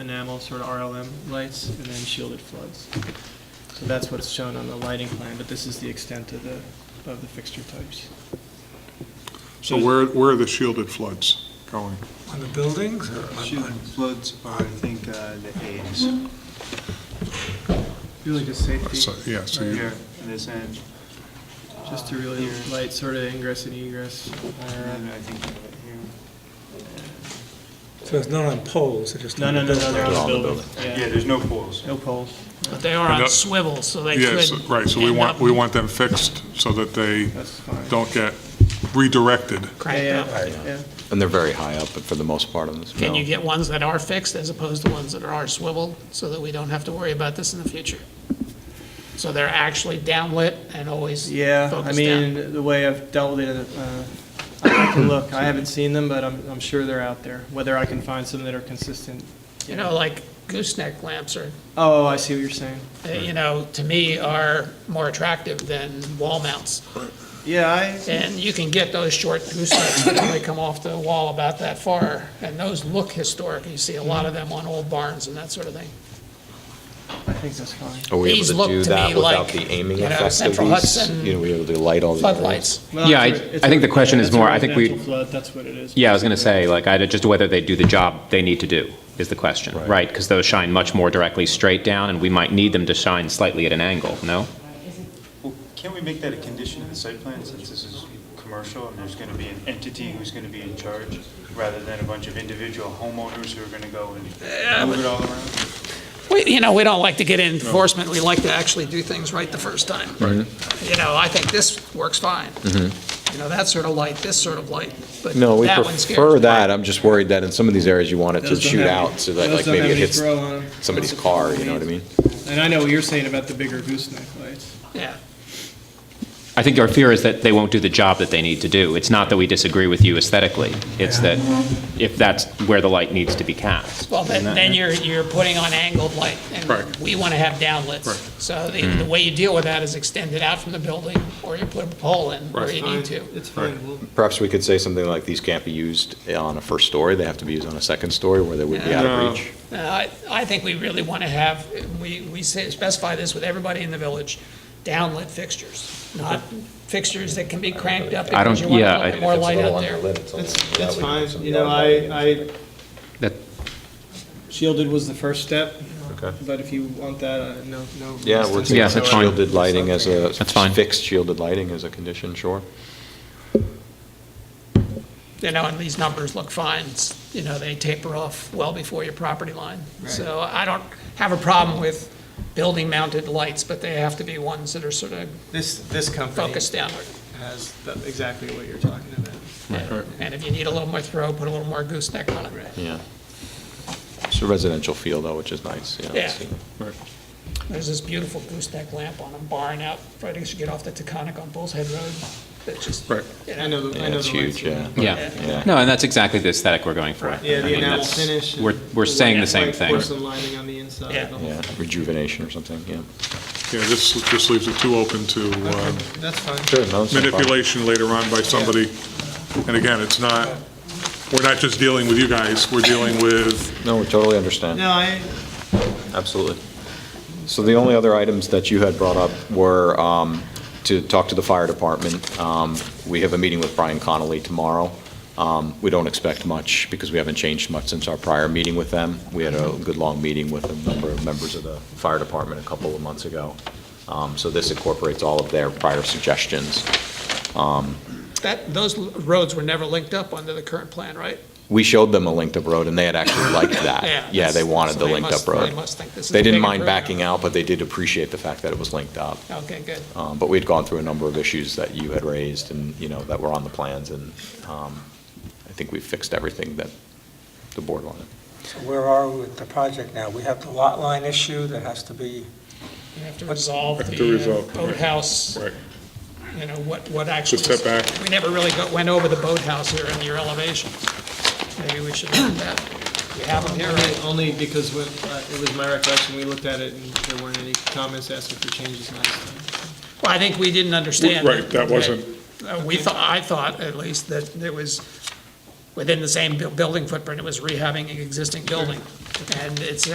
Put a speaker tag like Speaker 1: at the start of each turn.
Speaker 1: enamel, sort of RLM lights, and then shielded floods. So that's what's shown on the lighting plan, but this is the extent of the, of the fixture types.
Speaker 2: So where, where are the shielded floods going?
Speaker 3: On the buildings or on-
Speaker 4: Shielded
Speaker 3: on,
Speaker 4: floods are, I think, uh, the A's
Speaker 1: Really just safety,
Speaker 2: So, yeah, so
Speaker 4: right
Speaker 2: you,
Speaker 4: here in this end.
Speaker 1: just to really
Speaker 4: Here.
Speaker 1: light sort of ingress and egress.
Speaker 4: And then I think right
Speaker 3: so it's not on poles, it's just.
Speaker 1: No,
Speaker 3: on the
Speaker 1: no, no, no, they're
Speaker 3: buildings.
Speaker 1: on the building,
Speaker 4: here. Yeah,
Speaker 1: yeah,
Speaker 4: there's no poles.
Speaker 1: no poles,
Speaker 5: But they are
Speaker 2: And
Speaker 5: on
Speaker 2: that-
Speaker 5: swivels, so they
Speaker 2: yes,
Speaker 5: could.
Speaker 2: right, so we
Speaker 5: end
Speaker 2: want,
Speaker 5: up
Speaker 2: we want them fixed so that they
Speaker 1: that's fine.
Speaker 2: don't get redirected.
Speaker 1: Yeah,
Speaker 5: cranked up.
Speaker 1: yeah, yeah,
Speaker 6: And they're very high up, but for the most part on this.
Speaker 5: Can
Speaker 6: no.
Speaker 5: you get ones that are fixed as opposed to ones that are swiveled, so that we don't have to worry about this in the future? So they're actually downlit and always
Speaker 1: yeah, I
Speaker 5: focused down.
Speaker 1: mean, the way I've dealt with it, uh, I have to look, I haven't seen them, but I'm, I'm sure they're out there, whether I can find some that are consistent.
Speaker 5: You know, like gooseneck lamps are,
Speaker 1: Oh, I see what you're saying.
Speaker 5: uh, you know, to me are more attractive than wall mounts.
Speaker 1: Yeah, I,
Speaker 5: And you can get those short goosenecks that only come off the wall about that far, and those look historic. You see a lot of them on old barns and that sort of thing.
Speaker 1: I think that's fine.
Speaker 6: Are we
Speaker 5: These
Speaker 6: able
Speaker 5: look
Speaker 6: to do
Speaker 5: to
Speaker 6: that
Speaker 5: me
Speaker 6: without
Speaker 5: like,
Speaker 6: the aiming
Speaker 5: you know,
Speaker 6: effect of
Speaker 5: Central
Speaker 6: these?
Speaker 5: Hudson
Speaker 6: You know, we able to light all the.
Speaker 5: Floodlights.
Speaker 1: Well,
Speaker 7: Yeah,
Speaker 1: it's
Speaker 7: I-
Speaker 1: a- it's
Speaker 7: I think
Speaker 1: a-
Speaker 7: the question
Speaker 1: yeah,
Speaker 7: is
Speaker 1: it's a
Speaker 7: more, I think we-
Speaker 1: residential flood, that's what it is.
Speaker 7: Yeah, I was going to say, like, I, just whether they do the job they need to do is the question, right? Because those shine much more directly straight down, and we might need them to shine slightly at an angle, no?
Speaker 4: Well, Can't we make that a condition of the site plan since this is commercial and there's going to be an entity who's going to be in charge rather than a bunch of individual homeowners who are going to go and move it all around?
Speaker 5: We, you know, we don't like to get in enforcement, we like to actually do things right the first time. Right. You know, I think this works fine. You know, that sort of light, this sort of light, but
Speaker 6: Mm-hmm. No, we
Speaker 5: that one scares
Speaker 6: prefer
Speaker 5: me.
Speaker 6: that. I'm just worried that in some of these areas you want it to
Speaker 1: Those don't
Speaker 6: shoot
Speaker 1: have-
Speaker 6: out so that
Speaker 1: those
Speaker 6: like
Speaker 1: don't
Speaker 6: maybe
Speaker 1: have any
Speaker 6: it hits
Speaker 1: throw on 'em.
Speaker 6: somebody's
Speaker 1: Those are
Speaker 6: car,
Speaker 1: cool
Speaker 6: you know what I
Speaker 1: leads.
Speaker 6: mean?
Speaker 1: And I know what you're saying about the bigger gooseneck lights.
Speaker 5: Yeah,
Speaker 7: I think our fear is that they won't do the job that they need to do. It's not that we disagree with you aesthetically, it's that if that's where the light needs to be cast.
Speaker 5: well, then, then you're, you're putting on angled light, and
Speaker 2: Right.
Speaker 5: we want to have downlits. So the,
Speaker 6: Mm-hmm.
Speaker 5: the way you deal with that is extend it out from the building, or you put a pole in where you need to.
Speaker 1: It's fine, we'll,
Speaker 6: Perhaps we could say something like, these can't be used on a first story, they have to be used on a second story where they would be out
Speaker 2: No.
Speaker 6: of reach.
Speaker 5: Uh, I, I think we really want to have, we, we say- specify this with everybody in the village, downlit fixtures, not fixtures that can be cranked up
Speaker 7: I don't-
Speaker 5: because you want a
Speaker 7: yeah,
Speaker 5: little
Speaker 7: I-
Speaker 5: bit more light out there.
Speaker 1: it's, it's fine, you know, I, I,
Speaker 7: That-
Speaker 1: shielded was the first step,
Speaker 6: Okay.
Speaker 1: but if you want that, uh, no, no.
Speaker 6: Yeah, we're
Speaker 7: Yeah,
Speaker 6: thinking
Speaker 7: that's fine.
Speaker 6: shielded lighting as a,
Speaker 7: That's fine.
Speaker 6: fixed shielded lighting as a condition, sure.
Speaker 5: You know, and these numbers look fine, It's- you know, they taper off well before your property line. So I don't have a problem with building mounted lights, but they have to be ones that are sort of
Speaker 1: This, this company
Speaker 5: focused downward.
Speaker 1: has the- exactly what you're talking about.
Speaker 5: And if you need a little more throw, put a little more gooseneck on it.
Speaker 6: Yeah. It's a residential feel though, which is nice, you know, it's,
Speaker 5: Yeah.
Speaker 6: uh,
Speaker 5: There's this beautiful gooseneck lamp on a barn out, right as you get off the Taconic on Bull's Head Road, that just,
Speaker 2: Right.
Speaker 1: I know, the- I
Speaker 6: Yeah,
Speaker 1: know
Speaker 6: it's
Speaker 1: the lights.
Speaker 6: huge, yeah.
Speaker 7: Yeah.
Speaker 6: Yeah.
Speaker 7: No, and that's exactly the aesthetic we're going for.
Speaker 1: Yeah,
Speaker 7: I
Speaker 1: the
Speaker 7: mean,
Speaker 1: enamel
Speaker 7: that's-
Speaker 1: finish. and
Speaker 7: We're, we're
Speaker 1: the
Speaker 7: saying the
Speaker 1: white-
Speaker 7: same
Speaker 1: white
Speaker 7: thing.
Speaker 1: Porcelain lining on the inside.
Speaker 5: Yeah.
Speaker 1: the whole-
Speaker 6: Yeah, rejuvenation or something, yeah.
Speaker 2: Yeah, this, this leaves it too open to um,
Speaker 1: Okay, That's fine.
Speaker 6: Sure, no, it's no problem.
Speaker 2: manipulation later on by somebody. And again, it's not, we're not just dealing with you guys, we're dealing with,
Speaker 6: No, we totally understand.
Speaker 1: No, I,
Speaker 6: Absolutely. So the only other items that you had brought up were um, to talk to the fire department. Um, We have a meeting with Brian Connolly tomorrow. Um, We don't expect much because we haven't changed much since our prior meeting with them. We had a good long meeting with a number of members of the fire department a couple of months ago. Um, So this incorporates all of their prior suggestions. Um,
Speaker 5: that, those roads were never linked up under the current plan, right?
Speaker 6: We showed them a linked-up road, and they had actually liked that. Yeah,
Speaker 5: that's-
Speaker 6: they wanted
Speaker 5: so
Speaker 6: the
Speaker 5: they
Speaker 6: linked-up
Speaker 5: must- They
Speaker 6: road.
Speaker 5: must think this is.
Speaker 6: They
Speaker 5: a
Speaker 6: didn't
Speaker 5: big
Speaker 6: mind backing
Speaker 5: improvement.
Speaker 6: out, but they did appreciate the fact that it was linked up.
Speaker 5: Okay, good.
Speaker 6: Um, But we had gone through a number of issues that you had raised and, you know, that were on the plans, and um, I think we fixed everything that the board wanted.
Speaker 3: So Where are we with the project now? We have the lot line issue that has to be,
Speaker 5: You have to resolve
Speaker 2: Have to
Speaker 5: the uh,
Speaker 2: resolve, right.
Speaker 5: boathouse,
Speaker 2: right,
Speaker 5: you know, what, what actually.
Speaker 2: step back.
Speaker 5: We never really got, went over the boathouse here and your elevations. Maybe we should look at that. We have them here,
Speaker 1: Only-
Speaker 5: right?
Speaker 1: Only because when, uh, it was my recollection, we looked at it and there weren't any comments asking for changes last time.
Speaker 5: Well, I think we didn't understand.
Speaker 2: right, that wasn't,
Speaker 5: Uh, We thought, I thought at least that it was within the same bu- building footprint, it was rehabbing an existing building. And it's,